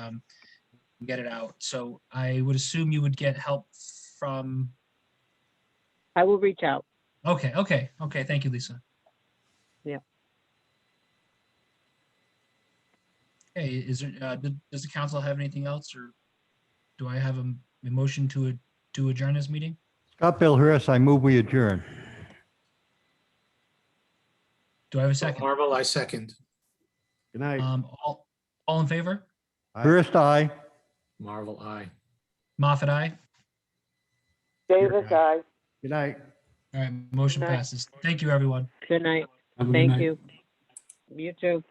um, get it out. So I would assume you would get help from, I will reach out. okay, okay, okay, thank you, Lisa. Yeah. Hey, is there, uh, did- does the council have anything else or do I have a m- a motion to, ad- to adjourn this meeting? Scott Billhurst, I move we adjourn. Do I have a second? Marvel, I second. Good night. Um, all, all in favor? Aye. Hurst, aye. Marvel, I. Moffat, aye. Davis, I. Good night. All right, motion Good night. passes. Thank you, everyone. Good night. Have a good Thank night. you. You too.